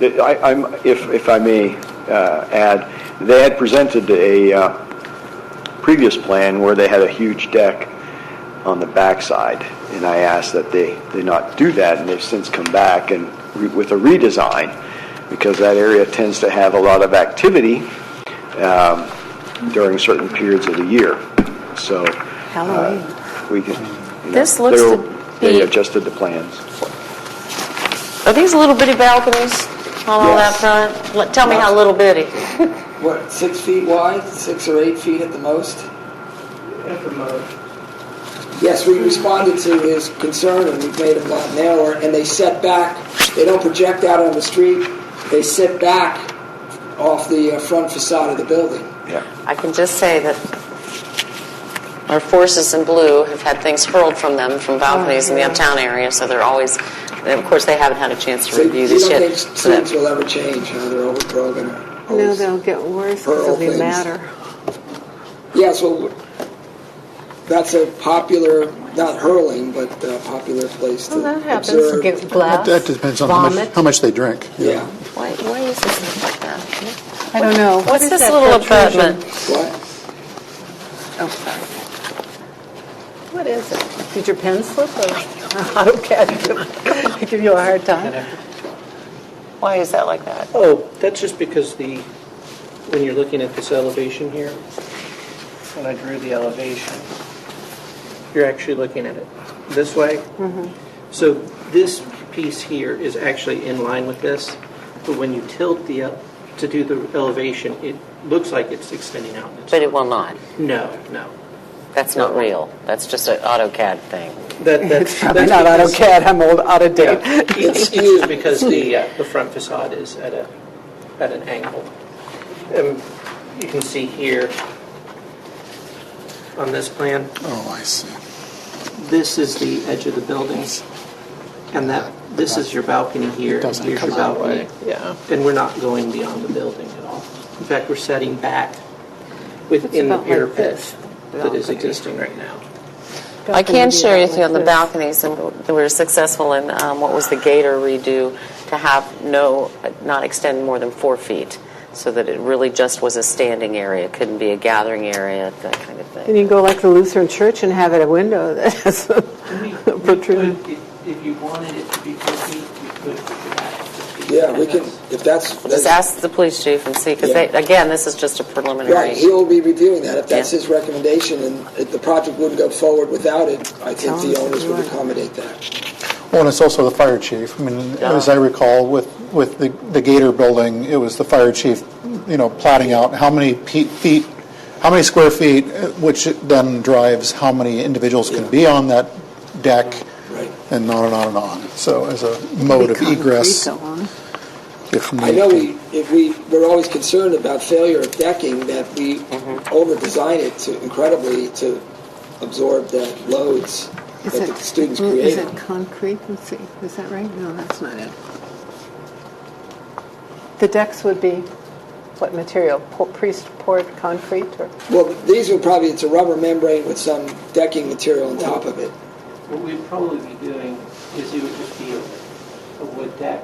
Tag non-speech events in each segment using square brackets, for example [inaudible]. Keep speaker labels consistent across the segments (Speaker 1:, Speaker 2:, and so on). Speaker 1: The- I- I'm, if, if I may uh, add, they had presented a uh, previous plan where they had a huge deck on the backside, and I asked that they, they not do that, and they've since come back and re- with a redesign, because that area tends to have a lot of activity um, during certain periods of the year, so. uh,
Speaker 2: Halloween.
Speaker 1: We can, you know,
Speaker 2: This looks to
Speaker 1: they're- They
Speaker 2: be-
Speaker 1: adjusted the plans.
Speaker 2: Are these little bitty balconies on all that
Speaker 1: Yes.
Speaker 2: front? Let- Tell me how little bitty.
Speaker 3: What, six feet wide, six or eight feet at the most?
Speaker 4: At the moment,
Speaker 3: Yes, we responded to his concern and we've made them a lot narrower and they set back, they don't project out on the street, they sit back off the uh, front facade of the building.
Speaker 1: Yeah.
Speaker 2: I can just say that our forces in blue have had things hurled from them
Speaker 3: Oh,
Speaker 2: from balconies in the uptown area, so they're always, and of course, they haven't had a chance
Speaker 3: So
Speaker 2: to
Speaker 3: you
Speaker 2: review this yet.
Speaker 3: don't think
Speaker 2: so that-
Speaker 3: streets will ever change, huh? They're overgrown or...
Speaker 5: No, they'll get worse
Speaker 3: For all
Speaker 5: because they
Speaker 3: things.
Speaker 5: matter.
Speaker 3: Yeah, so that's a popular, not hurling, but a popular place to
Speaker 2: Well, that happens.
Speaker 3: observe.
Speaker 6: Get glass,
Speaker 7: uh, That depends on how much,
Speaker 6: vomit.
Speaker 7: how much they drink.
Speaker 3: Yeah,
Speaker 2: Why, why is this look like that?
Speaker 5: I don't know. What
Speaker 2: What's
Speaker 5: is
Speaker 2: this
Speaker 5: that
Speaker 2: little
Speaker 5: protrusion?
Speaker 2: abutment?
Speaker 3: what?
Speaker 5: Oh, sorry.
Speaker 6: What is it? Did your pen slip or [laughs] AutoCAD give- give you a hard time?
Speaker 2: Why is that like that?
Speaker 4: oh, that's just because the, when you're looking at this elevation here, when I drew the elevation, you're actually looking at it this way. So this piece here is actually in line with this, but when you tilt the, el- to do the elevation, it looks like it's extending out.
Speaker 2: But it will not.
Speaker 4: No, no.
Speaker 2: That's not real. That's just an AutoCAD thing.
Speaker 4: That, that's.
Speaker 6: Probably
Speaker 4: that's
Speaker 6: not
Speaker 4: because-
Speaker 6: AutoCAD, I'm old, out of
Speaker 4: Yeah.
Speaker 6: date.
Speaker 4: It's skewed because the, uh, the front facade is at a, at an angle. Um, You can see here on this plan,
Speaker 7: Oh, I see.
Speaker 4: this is the edge of the buildings. And that, this is your balcony here, and
Speaker 7: Doesn't
Speaker 4: here's your
Speaker 7: come out
Speaker 4: balcony.
Speaker 7: right,
Speaker 4: Yeah. And we're not going beyond the building at all. In fact, we're setting back within the
Speaker 5: about like
Speaker 4: parapet
Speaker 5: this,
Speaker 4: that is existing right now.
Speaker 2: I can
Speaker 6: Balcony
Speaker 2: share
Speaker 6: would be
Speaker 2: with you
Speaker 6: about
Speaker 2: on the
Speaker 6: like
Speaker 2: balconies, and we were successful in, um, what was the gator redo, to have no, not extend more than four feet, so that it really just was a standing area, It couldn't be a gathering area, that kind of
Speaker 6: And
Speaker 2: thing.
Speaker 6: you go like the Lutheran church and have it a window that [laughs] has a
Speaker 4: We- we
Speaker 6: protruding.
Speaker 4: could, If if you wanted it to be four feet, you could push it back. to feet.
Speaker 3: Yeah, we can, if that's...
Speaker 2: Just ask the police chief and see, because they,
Speaker 3: Yeah.
Speaker 2: again, this is just a preliminary.
Speaker 3: Right, he'll be reviewing that. If that's
Speaker 2: Yeah.
Speaker 3: his recommendation and if the project wouldn't go forward without it, I think the
Speaker 6: Tell him
Speaker 3: owners would
Speaker 6: you're-
Speaker 3: accommodate that.
Speaker 7: Well, Oh, and it's also the fire chief. I mean, as I recall, with, with the, the Gator building, it was the fire chief, you know, plotting out how many pe- feet, how many square feet, uh, which then drives how many individuals can be on that deck,
Speaker 3: Right.
Speaker 7: and on and on and on. So as a mode of egress,
Speaker 5: Concrete go on.
Speaker 7: if need
Speaker 3: I know
Speaker 7: be.
Speaker 3: we, if we, we're always concerned about failure of decking, that we
Speaker 2: Mm-hmm.
Speaker 3: over-design it to incredibly to absorb the loads that
Speaker 5: Is
Speaker 3: the
Speaker 5: it-
Speaker 3: students
Speaker 5: mm, Is
Speaker 3: create.
Speaker 5: it concrete? Let's see, is that right? No, that's not it.
Speaker 6: The decks would be what material? Po- Priest poured concrete or?
Speaker 3: Well, these would probably, it's a rubber membrane with some decking material on top of it.
Speaker 4: What we'd probably be doing is it would just be a, a wood deck,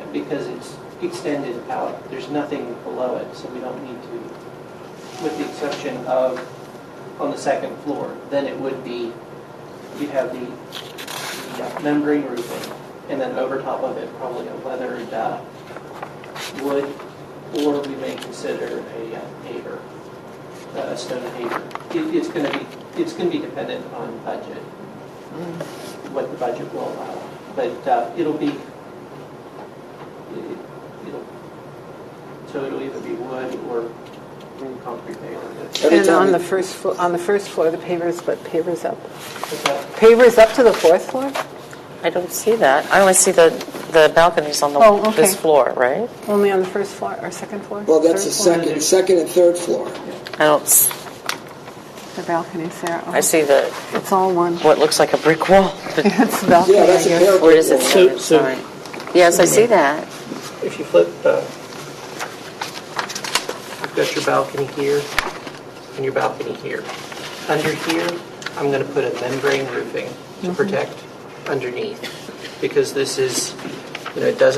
Speaker 4: And because it's extended out, there's nothing below it, so we don't need to, with the exception of on the second floor, then it would be, you'd have the the membrane roofing, and then over top of it, probably a weathered uh, wood, or we may consider a uh, paver uh, stone paper. It, it's going to be, it's going to be dependent on budget, what the budget will allow. But uh, it'll be, it- it'll, so it'll either be wood or concrete paper.
Speaker 3: Every
Speaker 6: And
Speaker 3: time
Speaker 6: on
Speaker 3: we-
Speaker 6: the first, flo- on the first floor, the pavers, but pavers up.
Speaker 4: But that-
Speaker 6: Pavers up to the fourth floor?
Speaker 2: I don't see that. I only see the, the balconies on
Speaker 6: Oh,
Speaker 2: the,
Speaker 6: okay.
Speaker 2: this floor, right?
Speaker 6: Only on the first floor or second floor?
Speaker 3: Well, that's the
Speaker 6: Third floor?
Speaker 3: second, second and third floor.
Speaker 2: I don't, s-
Speaker 5: The balcony's there. Oh,
Speaker 2: I see the,
Speaker 5: It's all
Speaker 6: [laughs]
Speaker 5: one.
Speaker 2: what looks like a brick wall, but
Speaker 5: It's the balcony,
Speaker 3: Yeah,
Speaker 5: I
Speaker 3: that's a
Speaker 5: guess.
Speaker 3: parapet.
Speaker 2: where [laughs] does it
Speaker 3: wall.
Speaker 4: So-
Speaker 2: sit?
Speaker 4: so-
Speaker 2: Sorry. Yes, I see that.
Speaker 4: If you flip, uh, you've got your balcony here and your balcony here. Under here, I'm going to put a membrane roofing to protect underneath because this is, you know, it doesn't